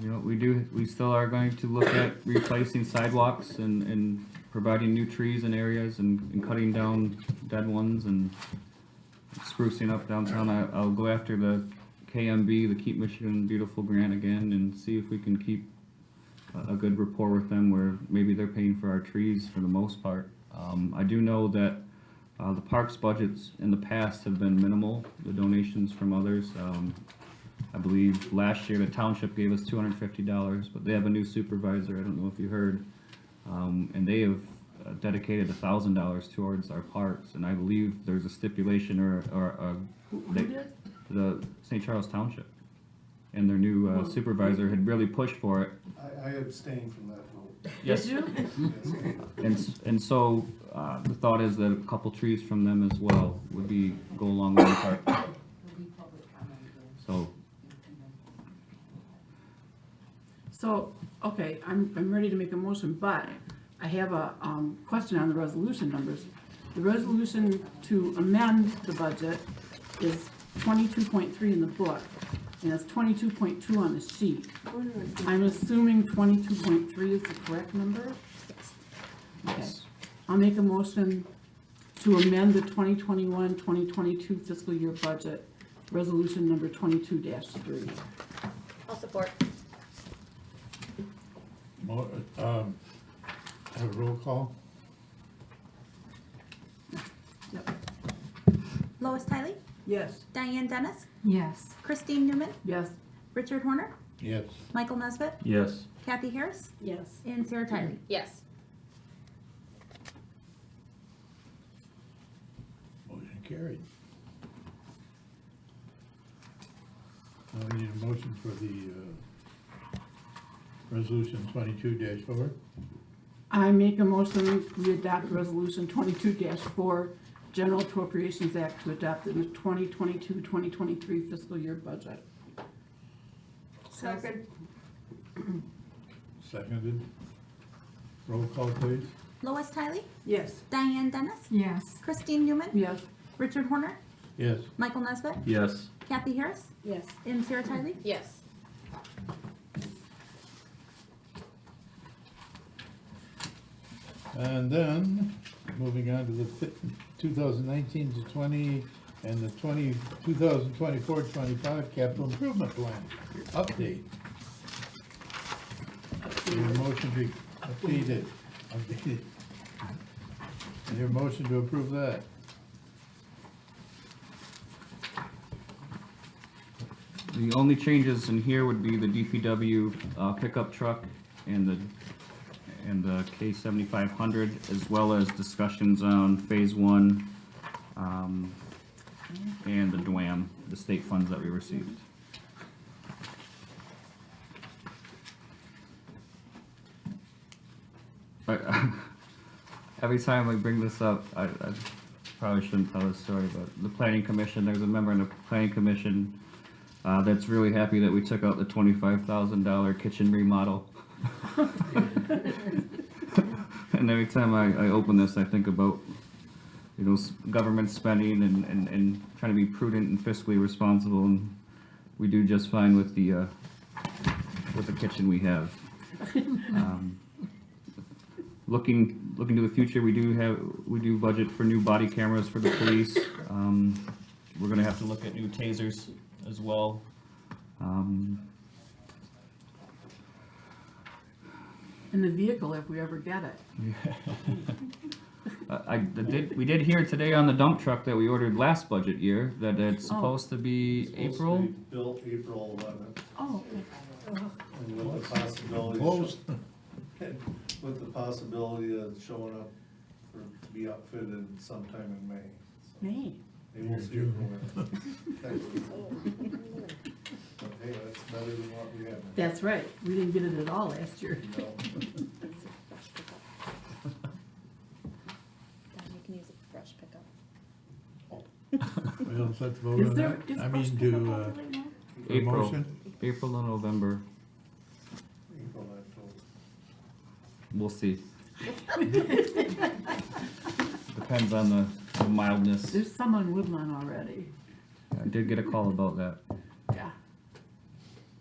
You know, we do, we still are going to look at replacing sidewalks and, and providing new trees in areas and, and cutting down dead ones and sprucing up downtown. I, I'll go after the KMB, the Keep Michigan Beautiful grant again and see if we can keep a, a good rapport with them where maybe they're paying for our trees for the most part. Um, I do know that, uh, the parks budgets in the past have been minimal, the donations from others. Um, I believe last year the township gave us two hundred and fifty dollars, but they have a new supervisor, I don't know if you heard. Um, and they have uh, dedicated a thousand dollars towards our parks, and I believe there's a stipulation or, or, uh, they- the St. Charles Township. And their new uh, Well, supervisor had really pushed for it, I, I abstain from that vote. Yes. Did you? Yes. and, s- and so, uh, the thought is that a couple trees from them as well would be, go along with the park, Will be public comment again. so. So, okay, I'm, I'm ready to make a motion, but I have a, um, question on the resolution numbers. The resolution to amend the budget is twenty-two point three in the book, and it's twenty-two point two on the sheet. I'm assuming twenty-two point three is the correct number? Okay. I'll make a motion to amend the 2021-2022 fiscal year budget, resolution number twenty-two three. I'll support. Mo- um, Have a roll call? Yep. Lois Tiley, Yes. Diane Dennis, Yes. Christine Newman, Yes. Richard Horner, Yes. Michael Nesbitt, Yes. Kathy Harris, Yes. and Sarah Tiley. Yes. Motion carried. Now Uh, we need a motion for the, uh, resolution twenty-two dash four. I make a motion, we adopt resolution twenty-two four, General Appropriations Act to adopt the 2022-2023 fiscal year budget. Second. Seconded. Roll call, please. Lois Tiley, Yes. Diane Dennis, Yes. Christine Newman, Yes. Richard Horner, Yes. Michael Nesbitt, Yes. Kathy Harris, Yes. and Sarah Tiley. Yes. And then, moving on to the fi- 2019 to 20 and the 20, 2024-25 capital improvement plan update. Your motion be updated, updated. Your motion to approve that. The only changes in here would be the DPW uh, pickup truck and the, and the K seventy-five hundred, as well as discussions on phase one, um, and the DWAM, the state funds that we received. I- Every time we bring this up, I, I probably shouldn't tell this story, but the planning commission, there's a member in the planning commission uh, that's really happy that we took out the twenty-five thousand dollar kitchen remodel. and every time I, I open this, I think about you know s- government spending and, and, and trying to be prudent and fiscally responsible, and we do just fine with the uh, with the kitchen we have. Um, looking looking to the future, we do have we do budget for new body cameras for the police. Um, we're gonna have to look at new tasers as well. Um, And the vehicle, if we ever get it. I, I did, we did hear today on the dump truck that we ordered last budget year, that it's Oh. supposed to be April. Supposed to be Built April eleventh, Oh, and with the possibility, Close. of- with the possibility of showing up, for to be outfitted sometime in May. So May. They will see it for it. Technically. But hey, that's better than what we have. now. That's right, we didn't get it at all last year. You know, you can use a brush pickup. We all set to vote Is on there, that? is I brush mean, pickup do, on uh, right now? a April. motion? April and November, April, October. we'll see. Depends on the the mildness. There's some on Woodlawn already, I did get a call about that. yeah.